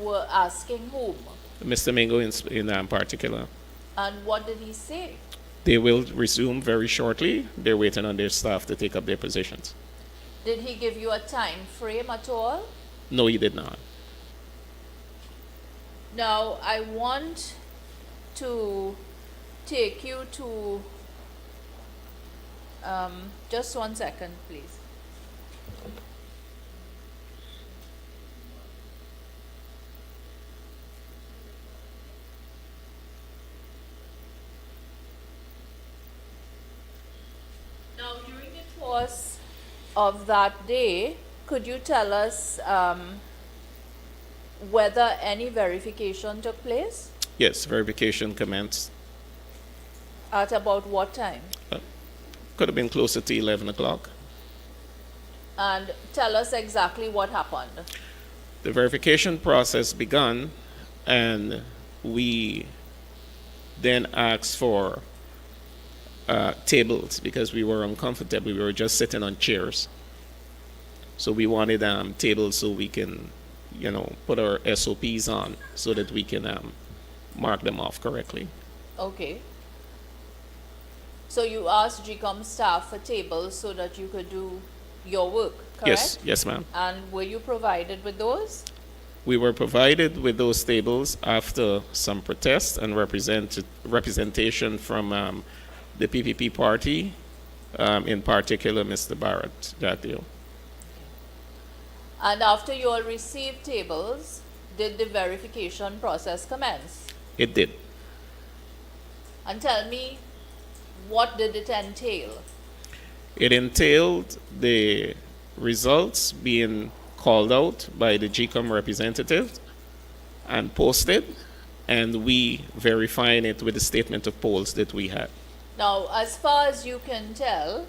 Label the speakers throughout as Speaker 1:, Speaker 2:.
Speaker 1: were asking whom
Speaker 2: Mr. Mingo in, s- in um, particular.
Speaker 1: and what did he say?
Speaker 2: They will resume very shortly. They're waiting on their staff to take up their positions.
Speaker 1: Did he give you a time frame at all?
Speaker 2: No, he did not.
Speaker 1: Now, I want to take you to, um, just one second, please. Now, during the course of that day, could you tell us, um, whether any verification took place?
Speaker 2: Yes, verification commenced.
Speaker 1: At about what time?
Speaker 2: Could have been closer to 11 o'clock.
Speaker 1: And tell us exactly what happened.
Speaker 2: The verification process begun, and we then asked for uh, tables because we were uncomfortable. We were just sitting on chairs. So we wanted um, tables so we can, you know, put our SOPs on so that we can um, mark them off correctly.
Speaker 1: Okay. So you asked GCOM staff for tables so that you could do your work, correct?
Speaker 2: Yes, yes, ma'am.
Speaker 1: And were you provided with those?
Speaker 2: We were provided with those tables after some protest and represent, representation from um, the PPP party, um, in particular Mr. Barrett Jatio.
Speaker 1: And after you all received tables, did the verification process commence?
Speaker 2: It did.
Speaker 1: And tell me, what did it entail?
Speaker 2: It entailed the results being called out by the GCOM representative and posted, and we verifying it with the statement of polls that we had.
Speaker 1: Now, as far as you can tell,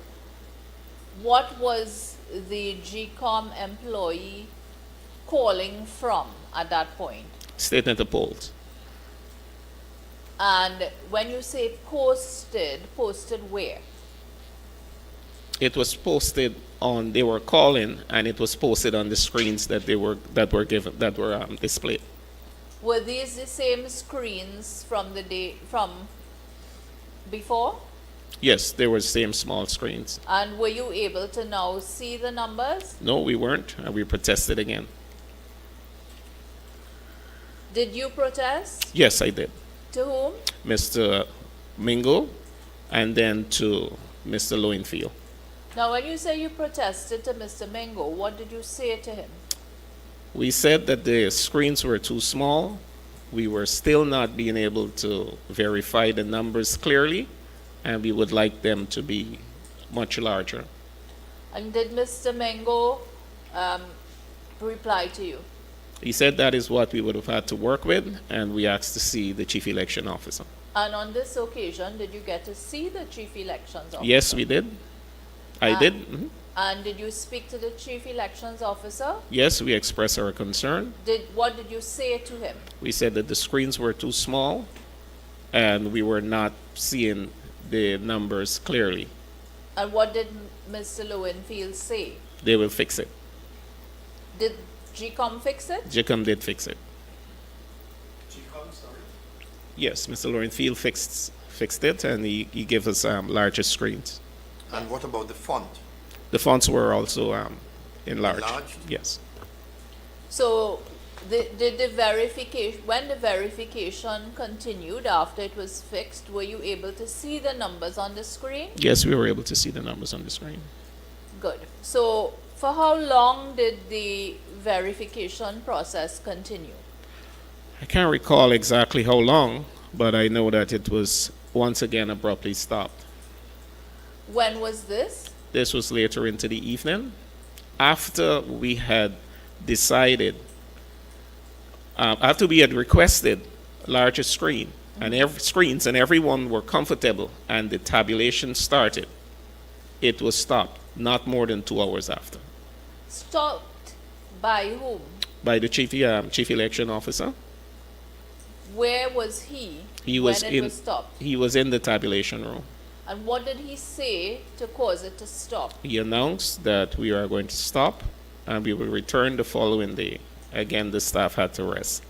Speaker 1: what was the GCOM employee calling from at that point?
Speaker 2: Statement of polls.
Speaker 1: And when you say posted, posted where?
Speaker 2: it was posted on they were calling and it was posted on the screens that they were that were given that were um, displayed
Speaker 1: Were these the same screens from the day from before?
Speaker 2: yes they were the same small screens
Speaker 1: And were you able to now see the numbers?
Speaker 2: no we weren't and we protested again
Speaker 1: Did you protest?
Speaker 2: yes i did
Speaker 1: To whom?
Speaker 2: mr mingle and then to mr lowenfield
Speaker 1: Now, when you say you protested to Mr. Mingo, what did you say to him?
Speaker 2: we said that the screens were too small we were still not being able to verify the numbers clearly and we would like them to be much larger
Speaker 1: And did Mr. Mengo um, reply to you?
Speaker 2: He said that is what we would have had to work with, and we asked to see the chief election officer.
Speaker 1: And on this occasion, did you get to see the chief elections officer?
Speaker 2: Yes, we did. I
Speaker 1: Ah.
Speaker 2: did. mhm.
Speaker 1: And did you speak to the chief elections officer?
Speaker 2: Yes, we expressed our concern.
Speaker 1: Did what did you say to him?
Speaker 2: We said that the screens were too small, and we were not seeing the numbers clearly.
Speaker 1: And what did M- Mr. Lowenfield say?
Speaker 2: They will fix it.
Speaker 1: Did GCOM fix it?
Speaker 2: Jacob did fix it.
Speaker 3: GCOM, sorry.
Speaker 2: Yes, Mr. Lawrence Field fixed fixed it, and he, he gave us um, larger screens.
Speaker 3: And what about the font?
Speaker 2: The fonts were also um, enlarged.
Speaker 3: Enlarged?
Speaker 2: Yes.
Speaker 1: So, the, did the verification when the verification continued after it was fixed? Were you able to see the numbers on the screen?
Speaker 2: Yes, we were able to see the numbers on the screen.
Speaker 1: Good. So, for how long did the verification process continue?
Speaker 2: I can't recall exactly how long, but I know that it was once again abruptly stopped.
Speaker 1: When was this?
Speaker 2: This was later into the evening after we had decided, uh, after we had requested larger screen and ev- screens, and everyone were comfortable, and the tabulation started. It was stopped not more than two hours after
Speaker 1: Stopped by whom?
Speaker 2: by the chief, um, chief election officer.
Speaker 1: Where was he,
Speaker 2: He was
Speaker 1: when it
Speaker 2: in.
Speaker 1: was stopped?
Speaker 2: He was in the tabulation room.
Speaker 1: And what did he say to cause it to stop?
Speaker 2: he announced that we are going to stop and we will return the following day. Again, the staff had to rest.